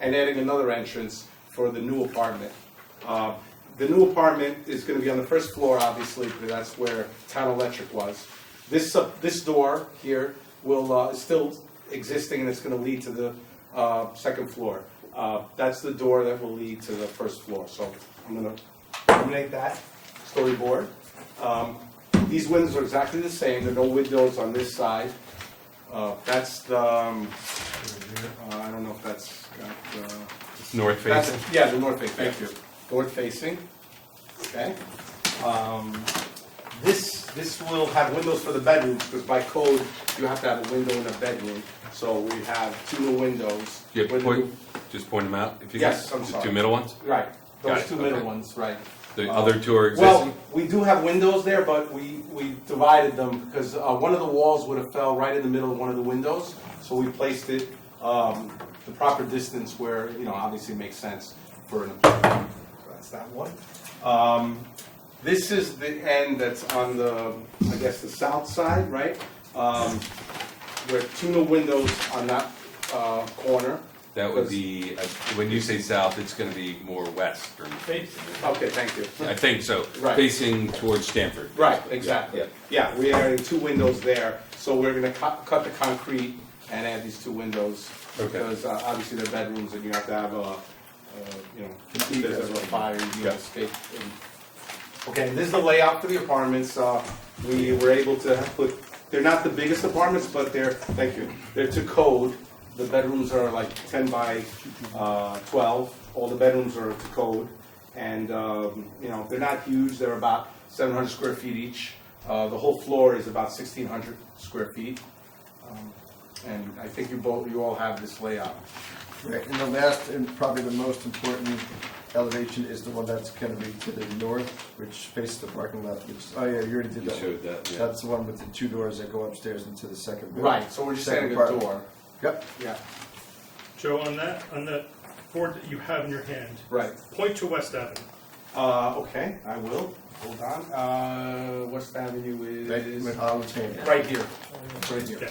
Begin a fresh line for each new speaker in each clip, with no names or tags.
and adding another entrance for the new apartment. Uh, The new apartment is gonna be on the first floor, obviously, because that's where town electric was. This, uh, this door here will, uh, is still existing and it's gonna lead to the uh, second floor. Uh, That's the door that will lead to the first floor, so I'm gonna eliminate that storyboard. Um, These windows are exactly the same, there are no windows on this side. Uh, That's the, um, uh, I don't know if that's got, uh,
North
that's-
facing.
Yeah, the north facing, thank you. North facing, okay. Um, This, this will have windows for the bedrooms, because by code, you have to have a window in a bedroom. So we have two new windows.
Yeah,
with-
point, just point them out. if you
Yes,
could.
I'm
The
sorry.
Two middle ones?
Right,
Got
those
it,
two middle
okay.
ones, right.
The
Uh,
other two are
Well,
existing?
we do have windows there, but we, we divided them, because uh, one of the walls would have fell right in the middle of one of the windows. So we placed it um, the proper distance where, you know, obviously makes sense for an apartment. So That's that one. Um, This is the end that's on the, I guess, the south side, right? Um, Where two new windows on that uh, corner.
That would be, uh, when you say south, it's gonna be more west or facing.
Okay, thank you.
I think so,
Right.
facing towards Stanford.
Right, exactly.
Yeah.
Yeah, we are in two windows there, so we're gonna cut, cut the concrete and add these two windows.
Okay.
Because uh, obviously they're bedrooms and you have to have a, uh, you know, if there's ever a fire, you need to escape. and- Okay, and this is the layout for the apartments. Uh, we were able to have put, they're not the biggest apartments, but they're, thank you, they're to code. The bedrooms are like ten by, uh, twelve. All the bedrooms are to code. And, um, you know, they're not huge. They're about seven hundred square feet each. Uh, the whole floor is about sixteen hundred square feet. Um, And I think you both, you all have this layout.
Right, and the last and probably the most important elevation is the one that's gonna be to the north, which faces the parking lot, which, oh yeah, you already did
You
that one.
showed that, yeah.
That's the one with the two doors that go upstairs into the second building.
Right, so we're just
Second
adding a
apartment.
door.
Yep,
Yeah,
Joe, on that, on that board that you have in your hand,
right.
point to West Avenue.
Uh, okay, I will. Hold on. Uh, West Avenue
right,
is
with Olive Chamber.
right here. Right here.
Yeah,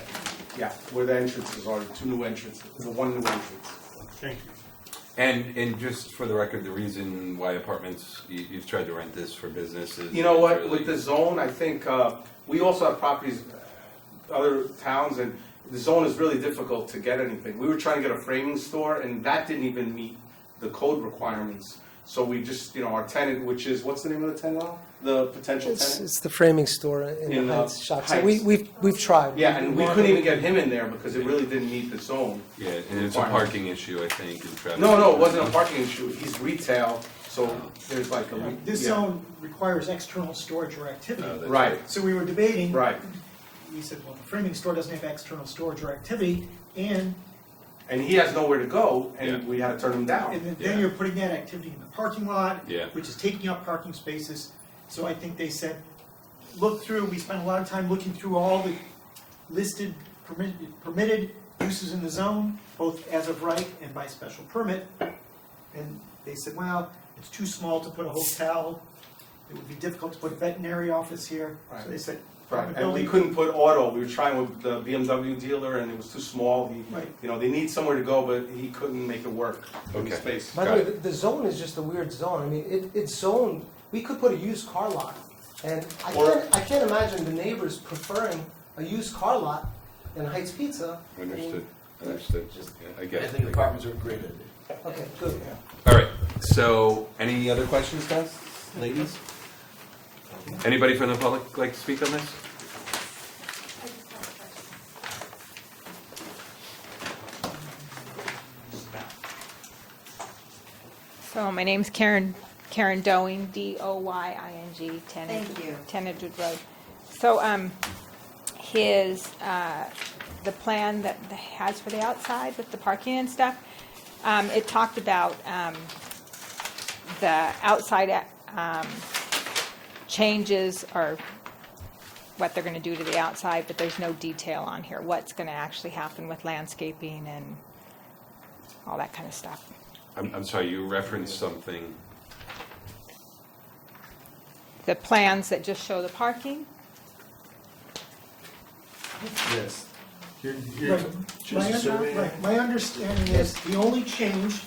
Yeah, where the entrances are, the two new entrances, the one new entrance.
thank you.
And, and just for the record, the reason why apartments, you, you've tried to rent this for businesses.
You know what,
really-
with the zone, I think, uh, we also have properties, uh, other towns, and the zone is really difficult to get anything. We were trying to get a framing store, and that didn't even meet the code requirements. So we just, you know, our tenant, which is, what's the name of the tenant, Al? the potential
It's,
tenant?
it's the framing store in,
In,
the
uh,
Heights shop. So we,
Heights.
we've, we've tried.
Yeah, and we couldn't even get him in there because it really didn't meet the zone.
Yeah, and it's a parking issue, I think, in Travis.
No, no, it wasn't a parking issue, he's retail, so there's like a.
This
yeah.
zone requires external storage or
No,
activity.
that's-
Right,
So we were debating.
right.
We said, well, the framing store doesn't have external storage or activity, and,
And he has nowhere to go, and
Yeah.
we had to turn him
and
down.
then-
Yeah.
then you're putting that activity in the parking lot.
Yeah.
Which is taking up parking spaces. So I think they said, look through, we spent a lot of time looking through all the listed permitted, permitted uses in the zone, both as of right and by special permit. And they said, well, it's too small to put a hotel, it would be difficult to put a veterinary office here.
Right.
So they said,
Right,
private
And we
building,
couldn't put auto, we were trying with the BMW dealer, and it was too small. He-
Right.
You know, they need somewhere to go, but he couldn't make it work in the
Okay.
space.
By the
Got
way, the, the zone is just a weird zone. I mean, it, it's zoned. We could put a used car lot, and I
Or-
can't, I can't imagine the neighbors preferring a used car lot in Heights Pizza. I mean,
Understood, understood, Yeah, I get it.
apartments are a great idea.
Okay, good.
All right, so, any other questions, guys, ladies? Anybody from the public like to speak on this?
I just have a question.
So my name's Karen, Karen Doing, D-O-Y-I-N-G, 10
Thank you.
Ten Edgewood Road. So, um, his, uh, the plan that the- has for the outside with the parking and stuff, um, it talked about, um, the outside, uh, um, changes or what they're gonna do to the outside, but there's no detail on here, what's gonna actually happen with landscaping and all that kind of stuff.
I'm, I'm sorry, you referenced something.
the plans that just show the parking.
Yes. You're- you're-
Right. My, under- right. My understanding is the only change